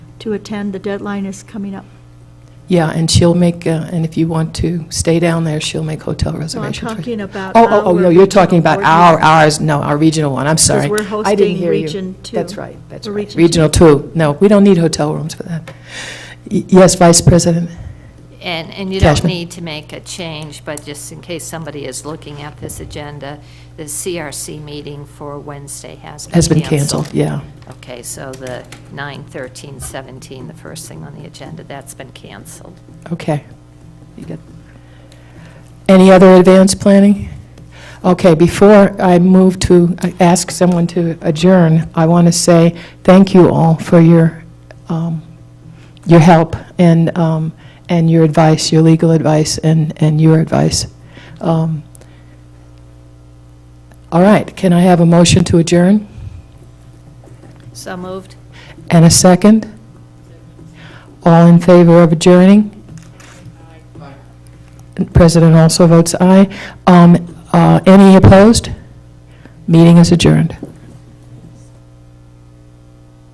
to attend. The deadline is coming up. Yeah, and she'll make, uh, and if you want to stay down there, she'll make hotel reservations. for you. talking about Oh, oh, oh, our no, you're talking regional about board our, meeting. ours, no, our regional one, I'm sorry. we're I hosting didn't hear you. Region Two. That's right, that's Or right. Region Regional 2, no, we don't need hotel rooms for that. Y- Yes, Vice President? And, and you don't Cashman. need to make a change, but just in case somebody is looking at this agenda, the CRC meeting for Wednesday has been Has been canceled. canceled, yeah. Okay, so the 9, 13, 17, the first thing on the agenda, that's been canceled. Okay. You got- Any other advanced planning? Okay, before I move to uh, ask someone to adjourn, I want to say thank you all for your, um, your help and, um, and your advice, your legal advice and, and your advice. Um, All right, can I have a motion to adjourn So moved? and a second? All in favor of adjourning? President also votes aye. Um, uh, Any opposed? Meeting is adjourned.